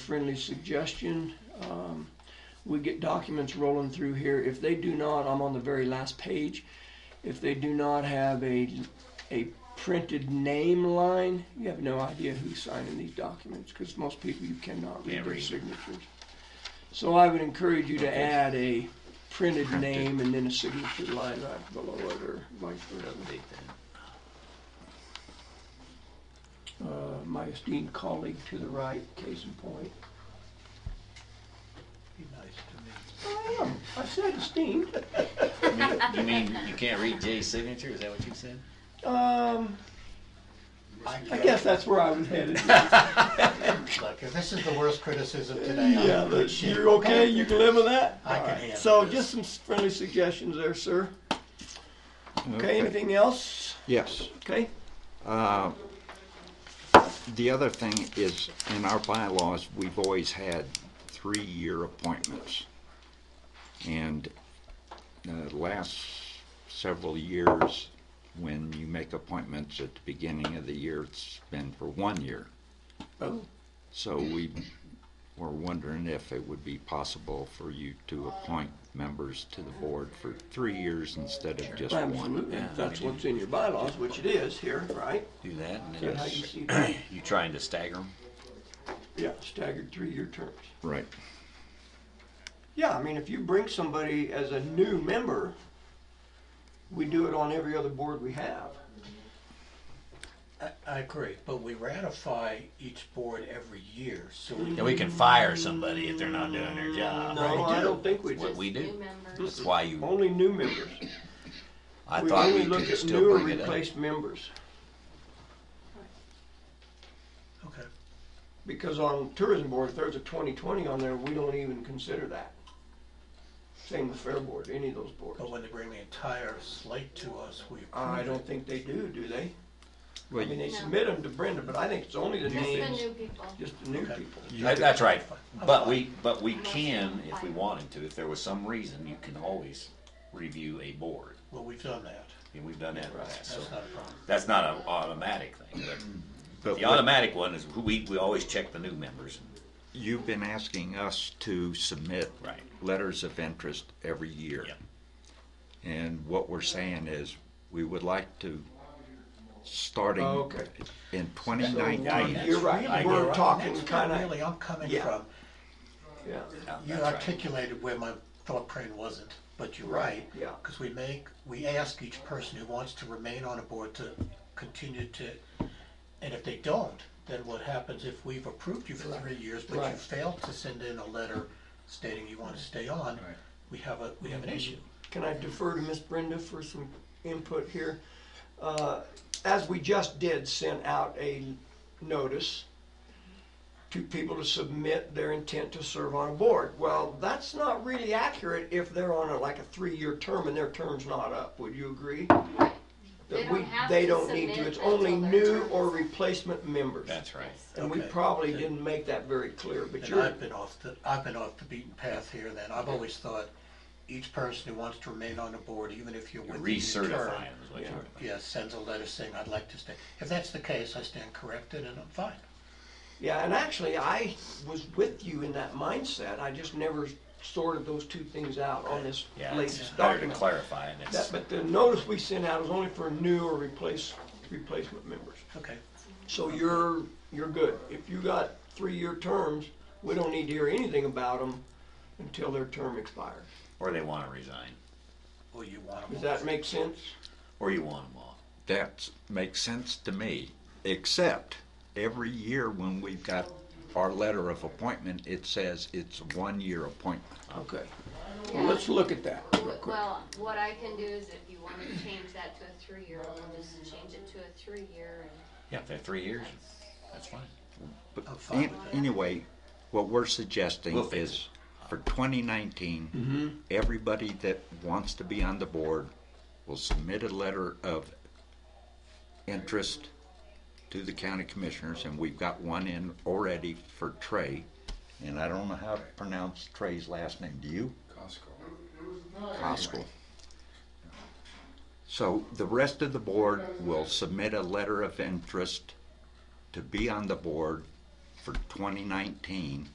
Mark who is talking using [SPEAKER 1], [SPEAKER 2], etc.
[SPEAKER 1] friendly suggestion. Um, we get documents rolling through here. If they do not, I'm on the very last page. If they do not have a, a printed name line, you have no idea who's signing these documents because most people you cannot read
[SPEAKER 2] Can't
[SPEAKER 1] their
[SPEAKER 2] read.
[SPEAKER 1] signatures. So I would encourage you to
[SPEAKER 2] Okay.
[SPEAKER 1] add a printed
[SPEAKER 2] Printed.
[SPEAKER 1] name and then a signature line right below it or vice versa.
[SPEAKER 2] Update that.
[SPEAKER 1] Uh, my esteemed colleague to the right, case in point.
[SPEAKER 3] Be nice to me.
[SPEAKER 1] I am. I said esteemed.
[SPEAKER 2] You mean- You mean you can't read Jay's signature? Is that what you said?
[SPEAKER 1] Um, I guess that's where I was headed.
[SPEAKER 3] Look, if this is the worst criticism today, I
[SPEAKER 1] Yeah, but
[SPEAKER 3] appreciate it.
[SPEAKER 1] you're okay, you can live with that?
[SPEAKER 3] I can
[SPEAKER 1] Alright,
[SPEAKER 3] handle
[SPEAKER 1] So
[SPEAKER 3] this.
[SPEAKER 1] just some friendly suggestions there, sir. Okay, anything else?
[SPEAKER 4] Yes.
[SPEAKER 1] Okay,
[SPEAKER 4] Uh, The other thing is, in our bylaws, we've always had three-year appointments. And uh, the last several years, when you make appointments at the beginning of the year, it's been for one year.
[SPEAKER 1] oh,
[SPEAKER 4] So we were wondering if it would be possible for you to appoint members to the board for three years instead of just one.
[SPEAKER 1] absolutely,
[SPEAKER 2] Yeah,
[SPEAKER 1] If that's
[SPEAKER 2] we do.
[SPEAKER 1] what's in your bylaws, which it is here, right?
[SPEAKER 2] Do that and
[SPEAKER 1] Is that how you
[SPEAKER 2] then
[SPEAKER 1] see that?
[SPEAKER 2] you trying to stagger them?
[SPEAKER 1] Yeah, staggered three-year terms.
[SPEAKER 4] Right.
[SPEAKER 1] Yeah, I mean, if you bring somebody as a new member, we do it on every other board we have.
[SPEAKER 3] I- I agree, but we ratify each board every year, so we
[SPEAKER 2] Yeah, we can fire somebody if they're not doing their job.
[SPEAKER 1] No,
[SPEAKER 2] right?
[SPEAKER 1] I don't think we
[SPEAKER 2] That's what
[SPEAKER 1] do.
[SPEAKER 2] we
[SPEAKER 5] New
[SPEAKER 2] do.
[SPEAKER 5] members.
[SPEAKER 2] That's why you,
[SPEAKER 1] Only new members.
[SPEAKER 2] I
[SPEAKER 1] We
[SPEAKER 2] thought
[SPEAKER 1] only
[SPEAKER 2] we
[SPEAKER 1] look
[SPEAKER 2] could
[SPEAKER 1] at
[SPEAKER 2] still
[SPEAKER 1] new or
[SPEAKER 2] bring it up.
[SPEAKER 1] replaced members.
[SPEAKER 3] Okay.
[SPEAKER 1] Because on tourism board, if there's a twenty twenty on there, we don't even consider that. Same with fair board, any of those boards.
[SPEAKER 3] But when they bring the entire slate to us, we
[SPEAKER 1] I
[SPEAKER 3] approve
[SPEAKER 1] don't
[SPEAKER 3] it.
[SPEAKER 1] think they do, do they? I
[SPEAKER 4] Well,
[SPEAKER 1] mean,
[SPEAKER 4] you-
[SPEAKER 1] they
[SPEAKER 5] No.
[SPEAKER 1] submit them to Brenda, but I think it's only the
[SPEAKER 5] Just the
[SPEAKER 1] names,
[SPEAKER 5] new people.
[SPEAKER 1] just the new
[SPEAKER 3] Okay.
[SPEAKER 1] people.
[SPEAKER 2] That- That's right.
[SPEAKER 3] I'm
[SPEAKER 2] But
[SPEAKER 3] fine.
[SPEAKER 2] we, but we can, if we wanted to, if there was some reason, you can always review a board.
[SPEAKER 3] Well, we've done that.
[SPEAKER 2] And we've done that in the past, so
[SPEAKER 3] That's not a problem.
[SPEAKER 2] that's not an automatic thing. but
[SPEAKER 4] but
[SPEAKER 2] The
[SPEAKER 4] what-
[SPEAKER 2] automatic one is who we, we always check the new members.
[SPEAKER 4] You've been asking us to submit
[SPEAKER 2] Right.
[SPEAKER 4] letters of interest every year.
[SPEAKER 2] Yep.
[SPEAKER 4] And what we're saying is, we would like to, starting
[SPEAKER 1] Oh, okay.
[SPEAKER 4] in
[SPEAKER 1] So, one-
[SPEAKER 4] 2019.
[SPEAKER 1] You're right,
[SPEAKER 2] I
[SPEAKER 3] You're
[SPEAKER 1] we're
[SPEAKER 3] right.
[SPEAKER 1] talking
[SPEAKER 3] That's where
[SPEAKER 1] kinda,
[SPEAKER 3] Really, I'm coming
[SPEAKER 1] Yeah.
[SPEAKER 3] from.
[SPEAKER 1] yeah,
[SPEAKER 3] You
[SPEAKER 2] That's right.
[SPEAKER 3] articulated where my thought train wasn't, but you're right.
[SPEAKER 1] yeah.
[SPEAKER 3] Because we make, we ask each person who wants to remain on a board to continue to, and if they don't, then what happens if we've approved you for three years, but you
[SPEAKER 1] Right.
[SPEAKER 3] failed to send in a letter stating you want to stay on, we have a, we have an issue.
[SPEAKER 1] Can I defer to Miss Brenda for some input here? Uh, As we just did, sent out a notice to people to submit their intent to serve on a board. Well, that's not really accurate if they're on a, like a three-year term and their term's not up. Would you agree?
[SPEAKER 5] They
[SPEAKER 1] That we-
[SPEAKER 5] don't have
[SPEAKER 1] They
[SPEAKER 5] to
[SPEAKER 1] don't need to.
[SPEAKER 5] submit
[SPEAKER 1] It's only
[SPEAKER 5] until their
[SPEAKER 1] new
[SPEAKER 5] term
[SPEAKER 1] or
[SPEAKER 5] is up.
[SPEAKER 1] replacement members.
[SPEAKER 2] That's right.
[SPEAKER 1] And we
[SPEAKER 3] Okay.
[SPEAKER 1] probably didn't make that very clear, but
[SPEAKER 3] And
[SPEAKER 1] you're,
[SPEAKER 3] I've been off the, I've been off the beaten path here then. I've always thought each person who wants to remain on a board, even if you're
[SPEAKER 2] You're
[SPEAKER 3] within your term,
[SPEAKER 2] recertifying is what
[SPEAKER 1] Yeah.
[SPEAKER 2] you're.
[SPEAKER 3] yes, sends a letter saying, I'd like to stay. If that's the case, I stand corrected and I'm fine.
[SPEAKER 1] yeah, and actually, I was with you in that mindset. I just never sorted those two things out on this
[SPEAKER 2] Yeah, it's
[SPEAKER 1] latest
[SPEAKER 2] better to
[SPEAKER 1] document.
[SPEAKER 2] clarify, and
[SPEAKER 1] That,
[SPEAKER 2] it's,
[SPEAKER 1] but the notice we sent out was only for new or replace, replacement members.
[SPEAKER 3] Okay,
[SPEAKER 1] So you're, you're good. If you got three-year terms, we don't need to hear anything about them until their term expires.
[SPEAKER 2] or they wanna resign,
[SPEAKER 3] well, you want them
[SPEAKER 1] Does
[SPEAKER 3] all.
[SPEAKER 1] that make sense?
[SPEAKER 2] or you want them off.
[SPEAKER 4] That makes sense to me, except every year when we've got our letter of appointment, it says it's a one-year appointment.
[SPEAKER 1] Okay,
[SPEAKER 5] Yeah.
[SPEAKER 1] well, let's look at that real
[SPEAKER 5] W-
[SPEAKER 1] quick.
[SPEAKER 5] Well, what I can do is if you want to change that to a three-year, we'll just change it to a three-year and
[SPEAKER 2] Yeah, if they're three years, that's fine.
[SPEAKER 4] But
[SPEAKER 3] I'm fine
[SPEAKER 4] an-
[SPEAKER 3] with that.
[SPEAKER 4] anyway, what we're suggesting
[SPEAKER 2] Oh, We'll fix Mm-hmm.
[SPEAKER 4] is for 2019, everybody that wants to be on the board will submit a letter of interest to the county commissioners, and we've got one in already for Trey. And I don't know how to pronounce Trey's last name. Do you? Costco. So the rest of the board will submit a letter of interest to be on the board for 2019.